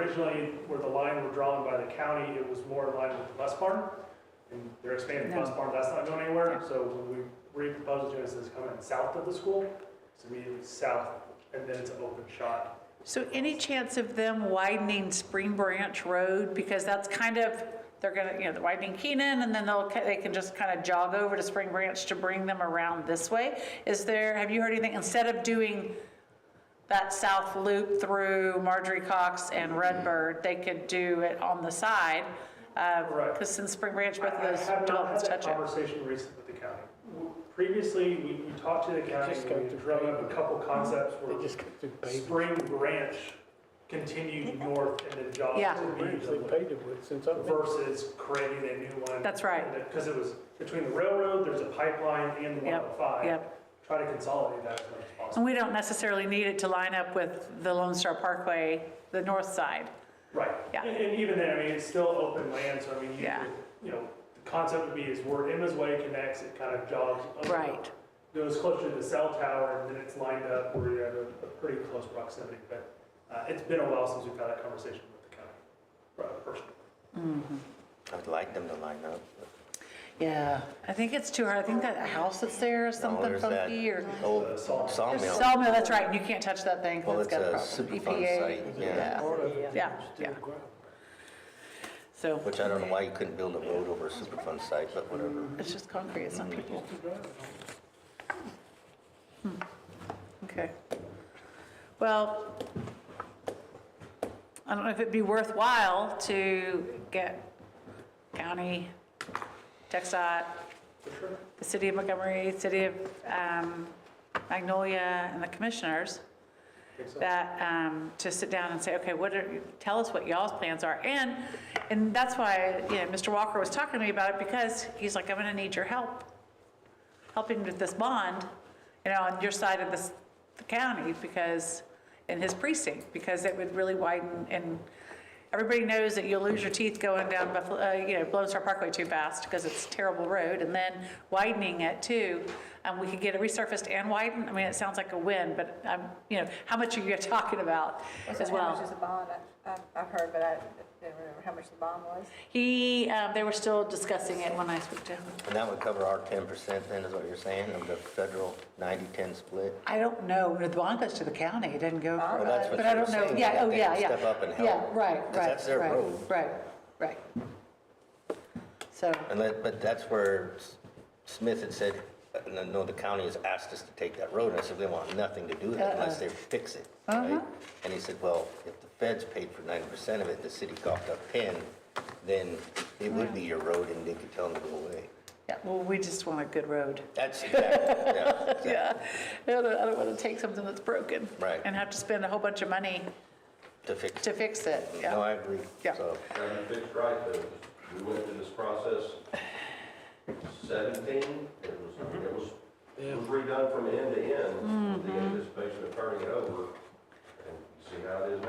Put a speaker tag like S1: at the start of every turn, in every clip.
S1: originally where the line were drawn by the county, it was more in line with West Barn. And they're expanding
S2: No.
S1: West Barn, that's not going anywhere. So when we reproposed it, it says come in south of the school. It's immediately south and then it's an open shot.
S2: So any chance of them widening Spring Branch Road? Because that's kind of, they're gonna, you know, they're widening Keenan, and then they'll, ca- they can just kind of jog over to Spring Branch to bring them around this way. Is there, have you heard anything, instead of doing that south loop through Marjorie Cox and Redbird, they could do it on the side?
S1: Correct.
S2: Because since Spring Branch, both of those developments
S1: I have not had that
S2: touch it.
S1: conversation recently with the county. W- Previously, we, we talked to the county,
S3: just
S1: and
S3: got
S1: we
S3: to
S1: drove up
S3: pave
S1: a
S3: it.
S1: couple concepts
S3: They
S1: where
S3: just got to pave it.
S1: Spring Branch continued north and then jogged
S2: Yeah.
S1: to
S3: Branch
S1: Meadville.
S3: they paved it with since I've been.
S1: versus creating a new one.
S2: That's right.
S1: Because it was between the railroad, there's a pipeline and the
S2: Yep,
S1: 105.
S2: yep.
S1: Try to consolidate that as much as
S2: And
S1: possible.
S2: we don't necessarily need it to line up with the Lone Star Parkway, the north side.
S1: Right.
S2: Oh, Yeah.
S1: And- And even then, I mean, it's still open land, so I mean, you
S2: Yeah.
S1: could, you know, the concept would be is where Emma's Way connects, it kind of jogs. up,
S2: Right.
S1: Goes closer to the cell tower and then it's lined up where you're at a a pretty close proximity. But uh, it's been a while since we've had that conversation with the county, right, personally.
S4: I would like them to line up.
S2: Yeah, I think it's too hard. I think that house that's there is
S4: No,
S2: something
S4: there's that
S2: funky or.
S4: Old
S1: Sawmill.
S2: There's
S4: sawmill.
S2: Sawmill, that's right, and you can't touch that thing
S4: Well,
S2: because it's got a
S4: it's a
S2: problem.
S4: Superfund
S2: EPA,
S4: site, yeah.
S3: Part of
S2: Yeah,
S3: it
S2: yeah,
S3: is still
S2: yeah,
S3: gravel.
S2: so
S4: Which I don't know why you couldn't build a road over a Superfund site, but whatever.
S2: it's just concrete, it's not people, Hmm.
S3: Used to drive on.
S2: okay. Well, I don't know if it'd be worthwhile to get county, TechSot, the city of Montgomery, city of um, Magnolia, and the commissioners
S1: Think so?
S2: that, um, to sit down and say, okay, what are, tell us what y'all's plans are. And, and that's why, you know, Mr. Walker was talking to me about it because he's like, I'm gonna need your help, helping with this bond, you know, on your side of this, the county, because, in his precinct, because it would really widen and everybody knows that you'll lose your teeth going down Buffalo, uh, you know, Lone Star Parkway too fast because it's a terrible road and then widening it too. And we could get it resurfaced and widened. I mean, it sounds like a win, but I'm, you know, how much are you talking about as
S5: How much
S2: well?
S5: is the bond? I- I- I've heard, but I didn't remember how much the bond was.
S2: He, um, they were still discussing it when I spoke to him.
S4: And that would cover our ten percent then, is what you're saying, of the federal 90-10 split?
S2: I don't know, the bond goes to the county, it doesn't go.
S4: Well, that's what
S2: But I
S4: you were
S2: don't know,
S4: saying,
S2: yeah,
S4: that
S2: oh,
S4: they
S2: yeah,
S4: would
S2: yeah.
S4: step up and help,
S2: Yeah, right, right.
S4: 'cause that's their
S2: right,
S4: road.
S2: Right, right. So,
S4: And that, but that's where S- Smith had said, uh, no, no, the county has asked us to take that road, and I said, they want nothing to do with it unless they fix it,
S2: Uh-huh.
S4: right? And he said, well, if the feds paid for ninety percent of it, the city coughed up ten, then it would be your road, and they could tell them to go away.
S2: yeah, well, we just want a good road.
S4: That's exactly, yeah, exactly.
S2: Yeah, I don't, I don't want to take something that's broken.
S4: Right.
S2: And have to spend a whole bunch of money
S4: to fix
S2: to
S4: it.
S2: fix it,
S4: No,
S2: yeah.
S4: I agree.
S2: Yeah.
S4: So,
S6: Got it fixed right, though. We went through this process seventeen, it was, it was it was redone from end to end, with the anticipation of turning it over, and see how it is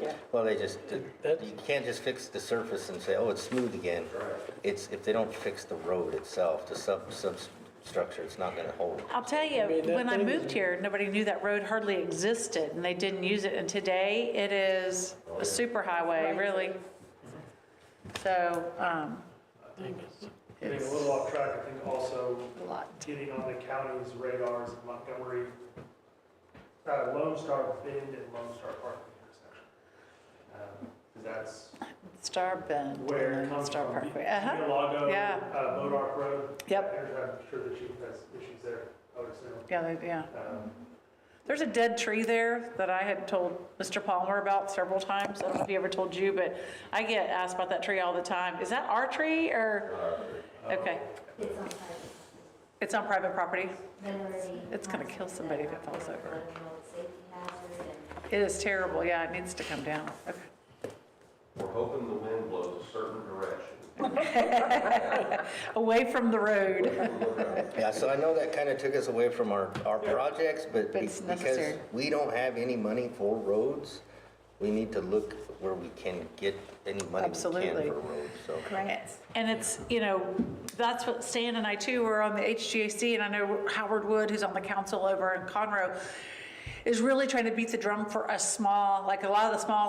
S6: now.
S4: well, they just,
S3: That's-
S4: you can't just fix the surface and say, oh, it's smooth again.
S6: Right.
S4: It's, if they don't fix the road itself, the sub, substructure, it's not gonna hold.
S2: I'll tell you,
S3: mean, that
S2: when I
S3: thing
S2: moved here, nobody knew that road hardly existed, and they didn't use it, and today it is
S4: Oh,
S2: a superhighway, really. So, um,
S1: Getting a
S2: it's
S1: little off track, I think also
S2: a lot.
S1: getting on the county's radars in Montgomery, uh, Lone Star Bend and Lone Star Park intersection. Um, 'cause that's
S2: Star Bend,
S1: where
S2: and
S1: it
S2: then
S1: comes
S2: Star
S1: from.
S2: Parkway, uh-huh,
S1: Lago,
S2: yeah.
S1: uh, Modoc Road.
S2: Yep.
S1: There's- I'm sure the chief has issues there, I would assume.
S2: yeah, they- yeah.
S1: Um,
S2: There's a dead tree there that I had told Mr. Palmer about several times. I don't know if he ever told you, but I get asked about that tree all the time. Is that our tree or, okay,
S7: It's on
S2: it's on private property?
S7: memory.
S2: It's gonna kill somebody if it falls over.
S7: Safety hazard and
S2: It is terrible, yeah, it needs to come down. Okay.
S6: We're hoping the wind blows a certain direction.
S2: Away from the road.
S4: Yeah, so I know that kind of took us away from our, our projects, but
S2: But
S4: be-
S2: it's
S4: because
S2: necessary.
S4: we don't have any money for roads, we need to look where we can get any money we can
S2: Absolutely.
S4: for roads, so.
S5: Grants.
S2: And it's, you know, that's what Stan and I too were on the HGAC, and I know Howard Wood, who's on the council over in Conroe, is really trying to beat the drum for us small, like a lot of the small